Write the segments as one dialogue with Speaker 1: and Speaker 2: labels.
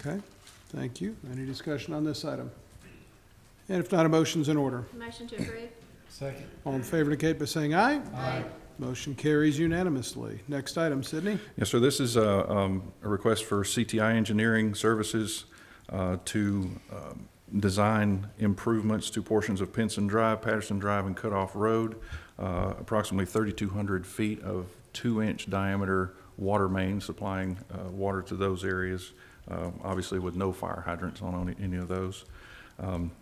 Speaker 1: Okay, thank you. Any discussion on this item? And if not, a motion's in order.
Speaker 2: Motion to approve.
Speaker 3: Second.
Speaker 1: All in favor indicate by saying aye. Aye. Motion carries unanimously. Next item, Sydney.
Speaker 4: Yes, sir, this is a, um, a request for CTI Engineering Services, uh, to, um, design improvements to portions of Pinson Drive, Patterson Drive, and Cutoff Road. Uh, approximately thirty-two hundred feet of two-inch diameter water main supplying, uh, water to those areas, uh, obviously with no fire hydrants on any- any of those. Um,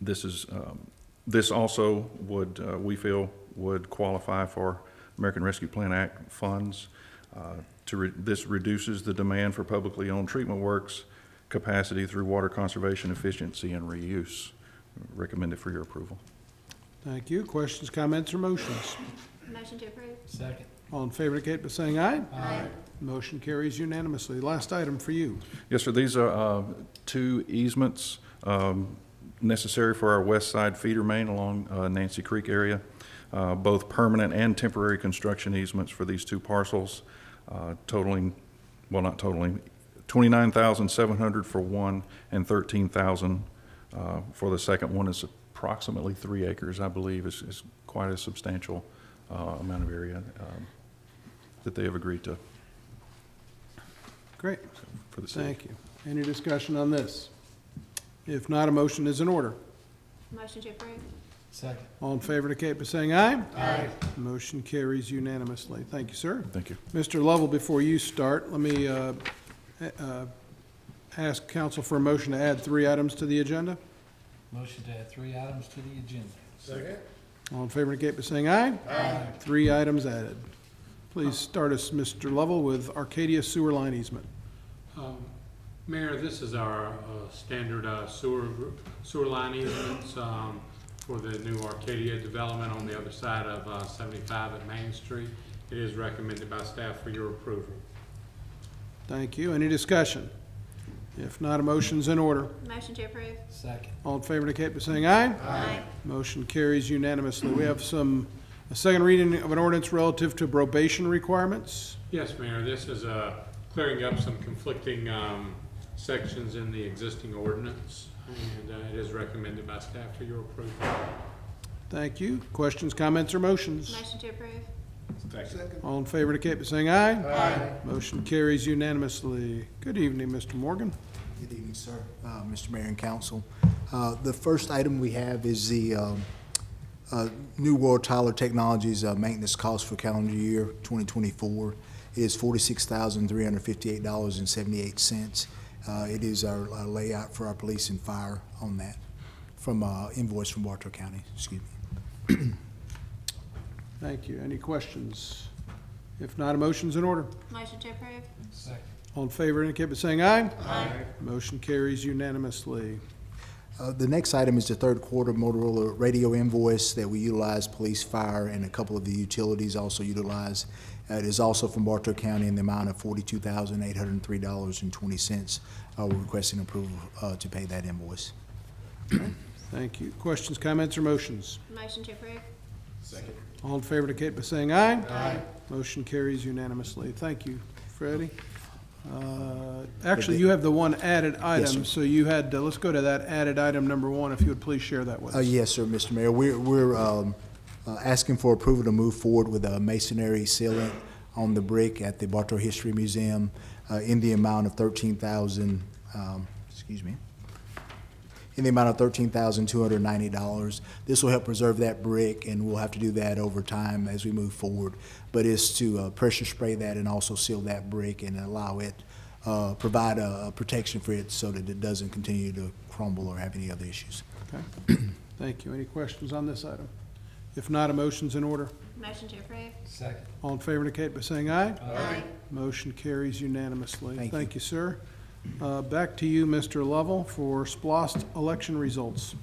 Speaker 4: this is, um, this also would, uh, we feel, would qualify for American Rescue Plan Act funds. Uh, To, re- this reduces the demand for publicly owned treatment works capacity through water conservation efficiency and reuse. Recommended for your approval.
Speaker 1: Thank you. Questions, comments, or motions?
Speaker 2: Motion to approve.
Speaker 3: Second.
Speaker 1: All in favor indicate by saying aye.
Speaker 2: Aye.
Speaker 1: Motion carries unanimously. Last item for you.
Speaker 4: Yes, sir, these are uh, two easements um, necessary for our west side feeder main along uh, Nancy Creek area, Uh, both permanent and temporary construction easements for these two parcels uh, totaling, well, not totaling, 29,700 for one and 13,000 uh, for the second one. It's approximately three acres, I believe, is is quite a substantial uh, amount of area um, that they have agreed to
Speaker 1: Great,
Speaker 4: for the city.
Speaker 1: thank you. Any discussion on this? If not, a motion is in order.
Speaker 2: Motion to approve.
Speaker 3: Second.
Speaker 1: All in favor indicate by saying aye.
Speaker 3: Aye.
Speaker 1: Motion carries unanimously. Thank you, sir.
Speaker 4: Thank you.
Speaker 1: Mr. Lovell, before you start, let me uh, a- uh, ask council for a motion to add three items to the agenda.
Speaker 3: Motion to add three items to the agenda.
Speaker 1: All in favor indicate by saying aye.
Speaker 3: Aye.
Speaker 1: Three items added. Please start us, Mr. Lovell, with Arcadia Sewer Line Easement.
Speaker 5: Um, Mayor, this is our uh, standard uh, sewer, sewer line easements um, for the new Arcadia development on the other side of uh, 75 at Main Street. It is recommended by staff for your approval.
Speaker 1: Thank you. Any discussion? If not, a motion's in order.
Speaker 2: Motion to approve.
Speaker 3: Second.
Speaker 1: All in favor indicate by saying aye.
Speaker 2: Aye.
Speaker 1: Motion carries unanimously. We have some, a second reading of an ordinance relative to probation requirements.
Speaker 5: Yes, Mayor, this is uh, clearing up some conflicting um, sections in the existing ordinance, and uh, it is recommended by staff for your approval.
Speaker 1: Thank you. Questions, comments, or motions?
Speaker 2: Motion to approve.
Speaker 1: All in favor indicate by saying aye. Aye. Motion carries unanimously. Good evening, Mr. Morgan.
Speaker 6: Good evening, sir, uh, Mr. Mayor and Council. Uh, The first item we have is the um, uh, New World Tyler Technologies uh, maintenance cost for calendar year 2024. It is $46,358.78. Uh, It is our our layout for our police and fire on that, from uh, invoice from Bartow County, excuse me.
Speaker 1: Thank you. Any questions? If not, a motion's in order.
Speaker 2: Motion to approve.
Speaker 3: Second.
Speaker 1: All in favor indicate by saying aye.
Speaker 2: Aye.
Speaker 1: Motion carries unanimously.
Speaker 6: Uh, The next item is the third quarter Motorola radio invoice that we utilize, police, fire, and a couple of the utilities also utilize. Uh, It is also from Bartow County in the amount of forty-two thousand, eight hundred and three dollars and twenty cents. We're requesting approval uh, to pay that invoice.
Speaker 1: Thank you. Questions, comments, or motions?
Speaker 2: Motion to approve.
Speaker 1: All in favor indicate by saying aye. Aye. Motion carries unanimously. Thank you, Freddie. Uh, Actually, you have the one added item,
Speaker 6: sir.
Speaker 1: so you had, to- let's go to that added item number one, if you would please share that with
Speaker 6: Uh,
Speaker 1: us.
Speaker 6: Yes, sir, Mr. Mayor. We're, we're um, uh, asking for approval to move forward with a masonry sealant on the brick at the Bartow History Museum uh, in the amount of thirteen thousand, um, excuse me, in the amount of thirteen thousand two hundred ninety dollars. This will help preserve that brick, and we'll have to do that over time as we move forward. But it's to uh, pressure spray that and also seal that brick and allow it, uh, provide a a protection for it so that it doesn't continue to crumble or have any other issues.
Speaker 1: Okay. Thank you. Any questions on this item? If not, a motion's in order.
Speaker 2: Motion to approve.
Speaker 3: Second.
Speaker 1: All in favor indicate by saying aye.
Speaker 2: Aye.
Speaker 1: Motion carries unanimously.
Speaker 6: Thank you.
Speaker 1: Thank you, sir. Uh, Back to you, Mr. Lovell, for splost election results.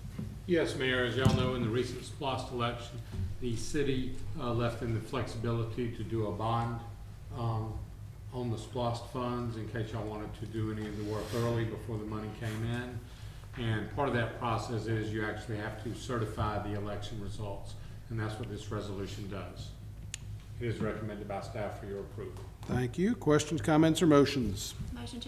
Speaker 5: Yes, Mayor, as y'all know, in the recent splost election, the city uh, left in the flexibility to do a bond um, on the splost funds in case y'all wanted to do any of the work early before the money came in. And part of that process is you actually have to certify the election results, and that's what this resolution does. It is recommended by staff for your approval.
Speaker 1: Thank you. Questions, comments, or motions?
Speaker 2: Motion to